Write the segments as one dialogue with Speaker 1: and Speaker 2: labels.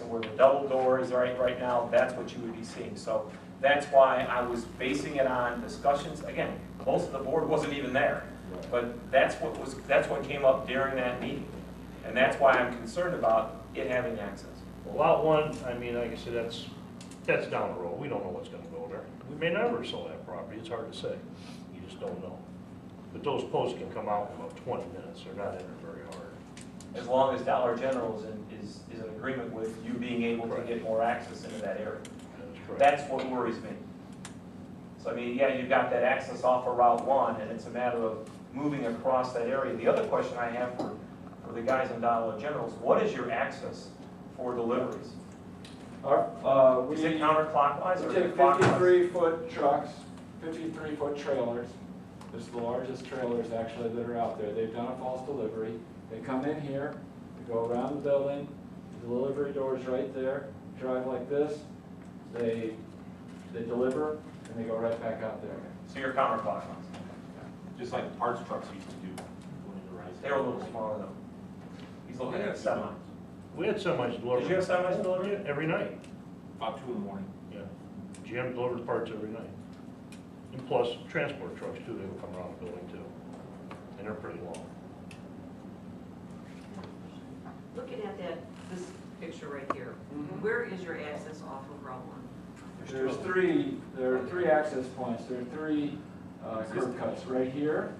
Speaker 1: where the double door is right, right now, that's what you would be seeing. So that's why I was basing it on discussions, again, most of the board wasn't even there. But that's what was, that's what came up during that meeting. And that's why I'm concerned about it having access.
Speaker 2: Lot one, I mean, like I said, that's, that's down the road, we don't know what's gonna go there. We may never sell that property, it's hard to say, you just don't know. But those posts can come out in about twenty minutes, they're not in there very hard.
Speaker 1: As long as Dollar General is in, is, is in agreement with you being able to get more access into that area.
Speaker 2: That's correct.
Speaker 1: That's what worries me. So I mean, yeah, you've got that access off of Route One, and it's a matter of moving across that area. The other question I have for, for the guys in Dollar General is, what is your access for deliveries?
Speaker 3: Our, uh, we
Speaker 1: Is it
Speaker 3: take
Speaker 1: counterclockwise or is it clockwise?
Speaker 3: fifty-three foot trucks, fifty-three foot trailers. This is the largest trailers actually that are out there. They've done a false delivery. They come in here, they go around the building, the delivery door's right there, drive like this. They, they deliver and they go right back out there.
Speaker 1: So you're counterclockwise.
Speaker 4: Just like parts trucks used to do when it arrived.
Speaker 1: They're a little smaller though. He's looking at semis.
Speaker 2: We had semis deliver.
Speaker 1: Did you have semis delivered?
Speaker 2: Every night,
Speaker 4: About two in the morning.
Speaker 2: yeah. GM delivered parts every night. And plus, transport trucks too, they would come around the building too, and they're pretty long.
Speaker 5: Looking at that, this picture right here,
Speaker 1: Mm-hmm.
Speaker 5: where is your access off of Route One?
Speaker 3: There's three, there are three access points. There are three uh, curb cuts, right here,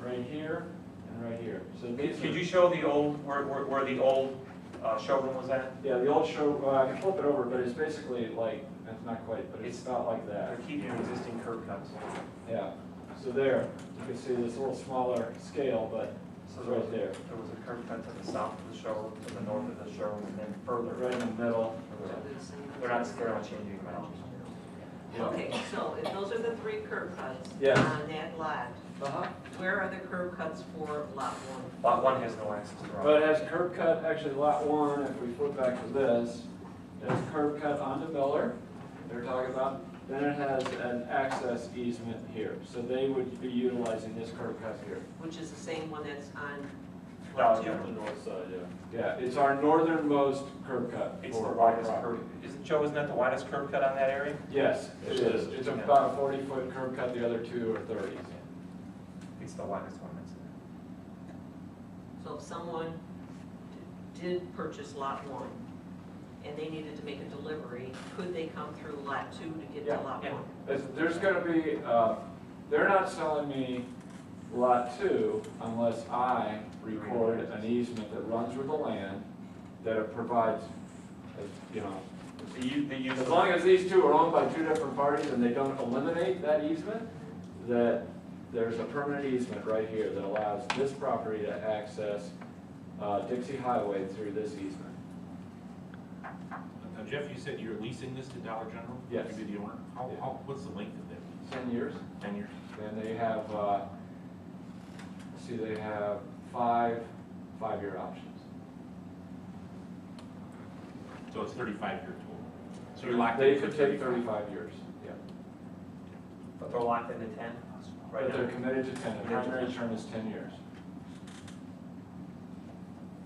Speaker 3: right here, and right here. So these are.
Speaker 1: Could you show the old, where, where, where the old uh, showroom was at?
Speaker 3: Yeah, the old show, well, I can flip it over, but it's basically like, it's not quite, but it's
Speaker 1: It's-
Speaker 3: about like
Speaker 1: They're
Speaker 3: that.
Speaker 1: keeping Uh, existing curb cuts.
Speaker 3: Yeah, so there, you can see this little smaller scale, but
Speaker 1: So
Speaker 3: it's
Speaker 1: there was,
Speaker 3: right there,
Speaker 1: there was a curb cut to the south of the showroom, to the north of the showroom, and then further.
Speaker 3: right in the middle.
Speaker 1: They're not, they're not changing dimensions.
Speaker 3: Yeah.
Speaker 5: Oh, Okay, so if those are the three curb cuts
Speaker 3: Yes.
Speaker 5: on that lot,
Speaker 3: Uh-huh.
Speaker 5: where are the curb cuts for Lot One?
Speaker 1: Lot one has no access to
Speaker 3: But
Speaker 1: Route.
Speaker 3: it has curb cut, actually lot one, if we flip back to this, it has curb cut onto Miller, they're talking about. Then it has an access easement here, so they would be utilizing this curb cut here.
Speaker 5: Which is the same one that's on
Speaker 1: Dollar
Speaker 5: Lot
Speaker 1: General.
Speaker 5: Two?
Speaker 3: The north side, yeah. Yeah, it's our northernmost curb cut.
Speaker 1: It's the
Speaker 3: for our
Speaker 1: widest
Speaker 3: property.
Speaker 1: curb, isn't, Joe, isn't that the widest curb cut on that area?
Speaker 3: Yes, it
Speaker 2: Yes, it
Speaker 3: is.
Speaker 2: is.
Speaker 3: It's about a forty-foot curb cut, the other two are thirties.
Speaker 1: It's the widest one that's there.
Speaker 5: So if someone did purchase Lot One and they needed to make a delivery, could they come through Lot Two to get
Speaker 3: Yeah,
Speaker 5: to Lot
Speaker 1: yeah.
Speaker 5: One?
Speaker 3: There's, there's gonna be, uh, they're not selling me lot two unless I record an easement that runs with the land that it provides, uh, you know.
Speaker 1: The u, the use
Speaker 3: As
Speaker 1: of,
Speaker 3: long as these two are owned by two different parties and they don't eliminate that easement, that there's a permanent easement right here that allows this property to access, uh, Dixie Highway through this easement.
Speaker 4: Now Jeff, you said you're leasing this to Dollar General?
Speaker 3: Yes.
Speaker 4: You'd be the owner? How,
Speaker 3: Yeah.
Speaker 4: how, what's the length of that lease?
Speaker 3: Ten years?
Speaker 4: Ten years?
Speaker 3: Then they have, uh, let's see, they have five, five-year options.
Speaker 4: So it's thirty-five year total. So you're locked
Speaker 3: They
Speaker 4: in.
Speaker 3: could take thirty-five years, yeah.
Speaker 1: but they're locked into ten right
Speaker 3: But
Speaker 1: now.
Speaker 3: they're committed to ten, the primary term is ten years.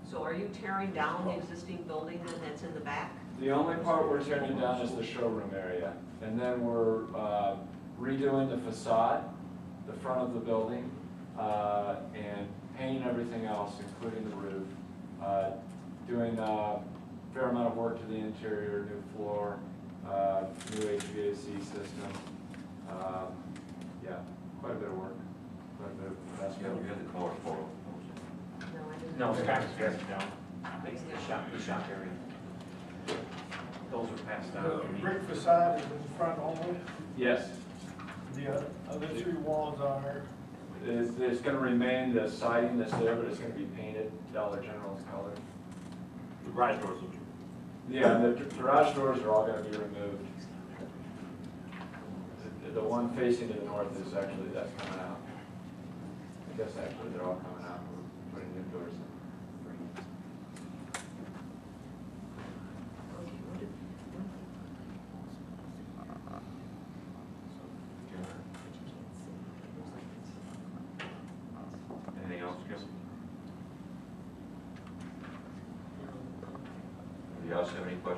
Speaker 5: So are you tearing down the existing building then that's in the back?
Speaker 3: The only part we're tearing down is the showroom area, and then we're uh, redoing the facade, the front of the building, uh, and painting everything else, including the roof. uh, Doing a fair amount of work to the interior, new floor, uh, new HVAC system. um, Yeah, quite a bit of work, quite a bit of investment.
Speaker 5: No, I didn't.
Speaker 1: No,
Speaker 4: It's
Speaker 1: it's
Speaker 4: kind
Speaker 1: not,
Speaker 4: of stretched down.
Speaker 1: it's the shop, the shop area. Those are passed
Speaker 6: The
Speaker 1: down.
Speaker 6: brick facade is in front only,
Speaker 3: Yes,
Speaker 6: the o- other three walls are,
Speaker 3: it's, it's gonna remain the siding that's there, but it's gonna be painted Dollar General's color.
Speaker 4: The garage doors will be.
Speaker 3: Yeah, the garage doors are all gonna be removed. The- The one facing to the north is actually, that's coming out. I guess actually they're all coming out, we're putting new doors in.
Speaker 5: Okay, what did-
Speaker 4: Anything else, Jeff?
Speaker 7: Do you also have any questions